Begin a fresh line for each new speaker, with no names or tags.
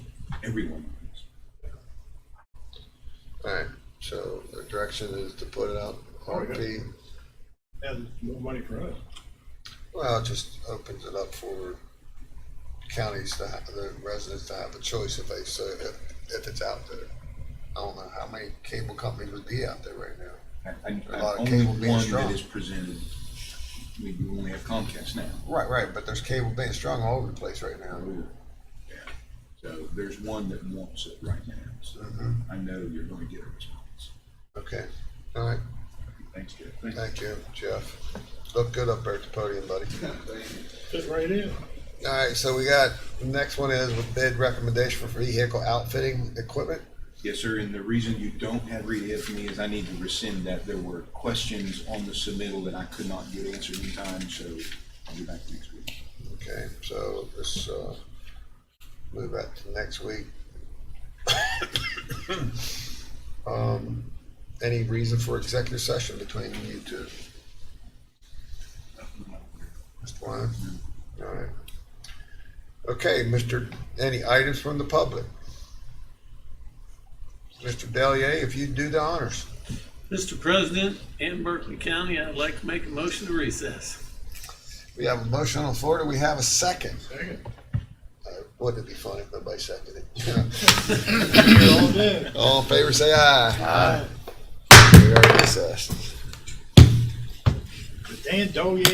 everyone wins.
All right, so the direction is to put it out RFP.
And more money for us.
Well, it just opens it up for counties to, ha- the residents to have a choice if they, so if, if it's out there. I don't know how many cable companies would be out there right now.
I- I-
A
I-
lot of
Only
cable being
one
strong.
that is presented, we we only have Comcast now.
Right, right, but there's cable being strung all over the place right now.
Yeah. So there's one that wants it right now, so
Mhm.
I know you're gonna get a response.
Okay, all right,
Thanks, Jeff. Thank you.
thank you, Jeff. Look good up there at the podium, buddy.
Sit right in.
All right, so we got, the next one is with bid recommendation for vehicle outfitting equipment.
Yes, sir, and the reason you don't have Rita here for me is I need to rescind that. There were questions on the submittal that I could not get answered in time, so I'll be back next week.
Okay, so let's, uh, move that to next week. Um, any reason for executive session between you two? Mr. Wyman? All right. Okay, Mr., any items from the public? Mr. Delier, if you do the honors.
Mr. President, in Berkeley County, I'd like to make a motion to recess.
We have a motion on the floor. Do we have a second?
Second.
Uh, Wouldn't it be funny if nobody seconded it?
All day.
All in favor, say aye. Aye. We are recessed.
Dan Doye